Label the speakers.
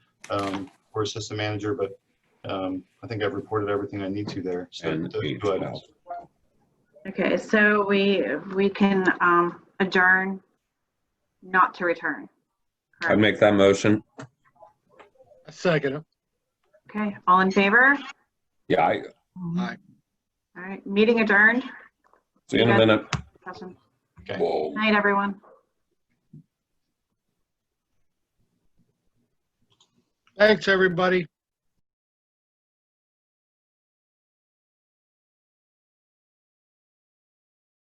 Speaker 1: um, or assistant manager, but um, I think I've reported everything I need to there. So uh,
Speaker 2: And
Speaker 1: those
Speaker 2: eight
Speaker 1: two items.
Speaker 2: twelve.
Speaker 3: Okay, so we, we can um, adjourn, not to return.
Speaker 2: I'd make that motion.
Speaker 4: I Second. it.
Speaker 3: Okay, all in favor?
Speaker 2: Yeah, I,
Speaker 3: All right, meeting adjourned.
Speaker 2: see you in a
Speaker 3: Okay.
Speaker 2: minute.
Speaker 3: Awesome.
Speaker 1: Okay.
Speaker 2: Whoa.
Speaker 3: Night, everyone.
Speaker 4: Thanks, everybody.